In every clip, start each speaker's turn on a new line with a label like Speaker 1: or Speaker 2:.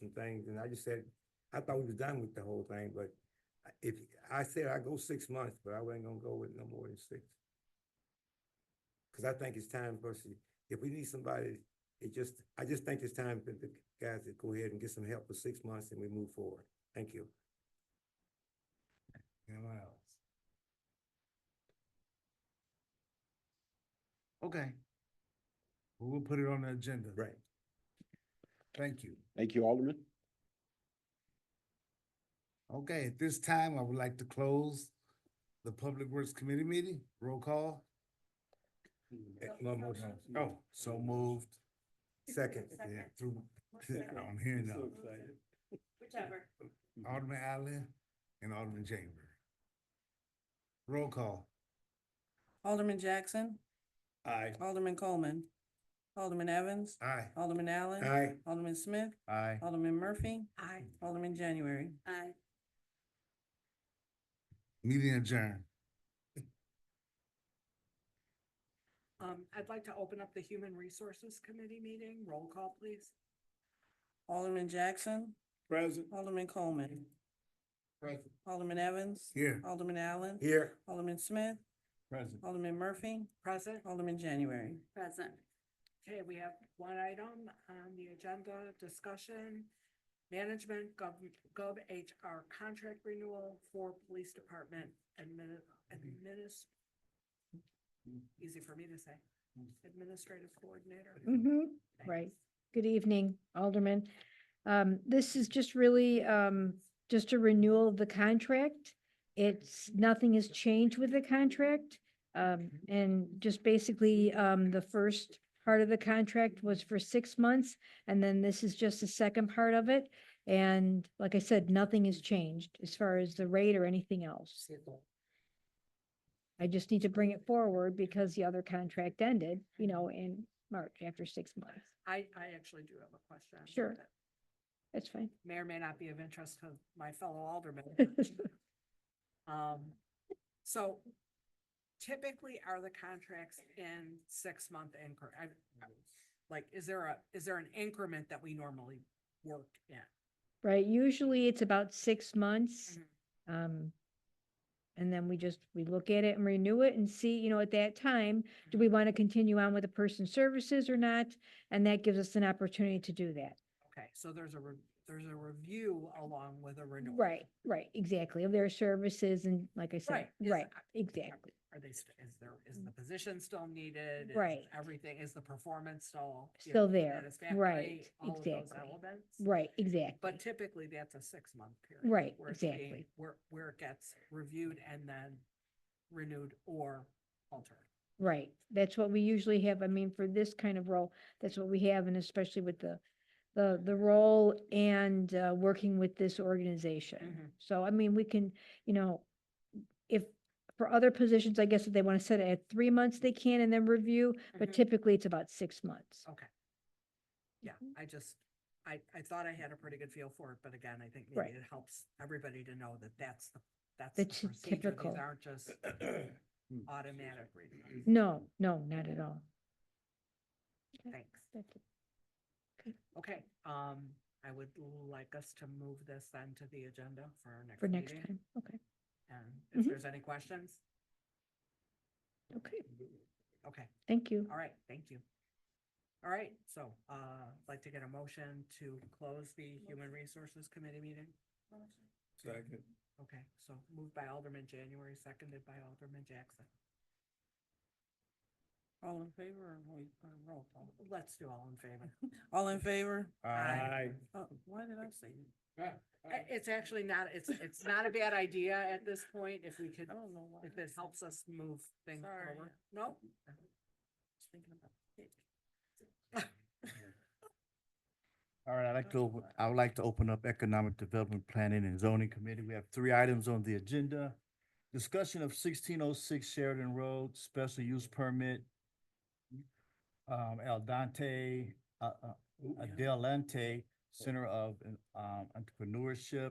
Speaker 1: some things, and I just said, I thought we was done with the whole thing, but I- if, I said I go six months, but I wasn't gonna go with no more than six. Cause I think it's time for us, to- if we need somebody, it just, I just think it's time for the guys to go ahead and get some help for six months and we move forward. Thank you.
Speaker 2: Anyone else? Okay. We'll we'll put it on the agenda.
Speaker 1: Right.
Speaker 2: Thank you.
Speaker 3: Thank you, Alderman.
Speaker 2: Okay, at this time, I would like to close the Public Works Committee meeting. Roll call.
Speaker 1: Eh, one more time.
Speaker 2: Oh, so moved.
Speaker 1: Second,
Speaker 2: Yeah, through, I'm hearing now.
Speaker 4: Whichever.
Speaker 2: Alderman Allen and Alderman Chamber. Roll call.
Speaker 5: Alderman Jackson,
Speaker 1: aye.
Speaker 5: Alderman Coleman, Alderman Evans,
Speaker 2: Aye.
Speaker 5: Alderman Allen.
Speaker 1: Aye.
Speaker 5: Alderman Smith,
Speaker 2: Aye.
Speaker 5: Alderman Murphy,
Speaker 4: Aye.
Speaker 5: Alderman January.
Speaker 4: Aye.
Speaker 2: Meeting adjourned.
Speaker 6: Um, I'd like to open up the Human Resources Committee meeting. Roll call, please.
Speaker 5: Alderman Jackson,
Speaker 1: Present.
Speaker 5: Alderman Coleman,
Speaker 2: Present.
Speaker 5: Alderman Evans.
Speaker 2: Here.
Speaker 5: Alderman Allen.
Speaker 1: Here.
Speaker 5: Alderman Smith,
Speaker 2: Present.
Speaker 5: Alderman Murphy,
Speaker 6: Present.
Speaker 5: Alderman January.
Speaker 4: Present.
Speaker 6: Okay, we have one item on the agenda, discussion. Management gov, gov HR contract renewal for police department admin, adminis. Easy for me to say, administrative coordinator.
Speaker 7: Mm-hmm,
Speaker 6: Thanks.
Speaker 7: right. Good evening, Alderman. Um, this is just really, um, just a renewal of the contract. It's, nothing has changed with the contract. Um, and just basically, um, the first part of the contract was for six months, and then this is just the second part of it. And like I said, nothing has changed as far as the rate or anything else. I just need to bring it forward because the other contract ended, you know, in March after six months.
Speaker 6: I, I actually do have a question.
Speaker 7: Sure.
Speaker 6: that
Speaker 7: That's fine.
Speaker 6: May or may not be of interest to my fellow aldermen. Um, so typically are the contracts in six-month increment? Like, is there a, is there an increment that we normally work in?
Speaker 7: Right, usually it's about six months.
Speaker 6: Mhm.
Speaker 7: Um, and then we just, we look at it and renew it and see, you know, at that time, do we want to continue on with the person's services or not? And that gives us an opportunity to do that.
Speaker 6: Okay, so there's a, re- there's a review along with a renewal.
Speaker 7: Right, right, exactly, of their services and like I said,
Speaker 6: Right, is-
Speaker 7: right, exactly,
Speaker 6: Are they, st- is there, is the position still needed? Is
Speaker 7: Right.
Speaker 6: Everything, is the performance still? you
Speaker 7: Still
Speaker 6: know,
Speaker 7: there,
Speaker 6: satisfactory?
Speaker 7: right,
Speaker 6: All of those
Speaker 7: exactly,
Speaker 6: elements?
Speaker 7: right, exactly.
Speaker 6: But typically, that's a six-month period.
Speaker 7: Right,
Speaker 6: where it's being-
Speaker 7: exactly.
Speaker 6: Where, where it gets reviewed and then renewed or altered.
Speaker 7: Right, that's what we usually have, I mean, for this kind of role, that's what we have, and especially with the, the, the role and, uh, working with this organization.
Speaker 6: Mhm.
Speaker 7: So, I mean, we can, you know, if, for other positions, I guess if they want to set it at three months, they can and then review, but
Speaker 6: Mhm.
Speaker 7: typically it's about six months.
Speaker 6: Okay. Yeah,
Speaker 7: Mm-hmm.
Speaker 6: I just, I, I thought I had a pretty good feel for it, but again, I think
Speaker 7: Right.
Speaker 6: maybe it helps everybody to know that that's the, that's the
Speaker 7: That's
Speaker 6: procedure.
Speaker 7: typical.
Speaker 6: These aren't just automatic renewals.
Speaker 7: No, no, not at all.
Speaker 6: Thanks.
Speaker 7: That's it.
Speaker 6: Okay, um, I would like us to move this then to the agenda for our next
Speaker 7: For next
Speaker 6: meeting.
Speaker 7: time, okay,
Speaker 6: And if
Speaker 7: Mhm.
Speaker 6: there's any questions,
Speaker 7: okay,
Speaker 6: okay.
Speaker 7: thank you.
Speaker 6: All right, thank you. All right, so uh, I'd like to get a motion to close the Human Resources Committee meeting.
Speaker 1: Second.
Speaker 6: Okay, so moved by Alderman January, seconded by Alderman Jackson.
Speaker 5: All in favor or wait, or roll call?
Speaker 6: Let's do all in favor.
Speaker 5: All in favor?
Speaker 1: Aye.
Speaker 5: Uh, why did I say that?
Speaker 6: I- It's actually not, it's, it's not a bad idea at this point if we could,
Speaker 5: I don't know why.
Speaker 6: if it helps us move things
Speaker 5: Sorry.
Speaker 6: forward. No,
Speaker 5: Thinking about it.
Speaker 8: All right, I'd like to, open- I would like to open up Economic Development Planning and Zoning Committee. We have three items on the agenda. Discussion of sixteen oh six Sheridan Road, special use permit. Um, El Dante, uh, uh, Adelante Center of um, Entrepreneurship.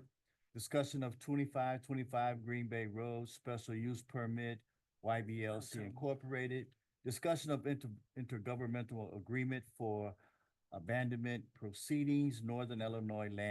Speaker 8: Discussion of twenty-five twenty-five Green Bay Road, special use permit, YBLC Incorporated. Discussion of inter- intergovernmental agreement for abandonment proceedings, Northern Illinois Land.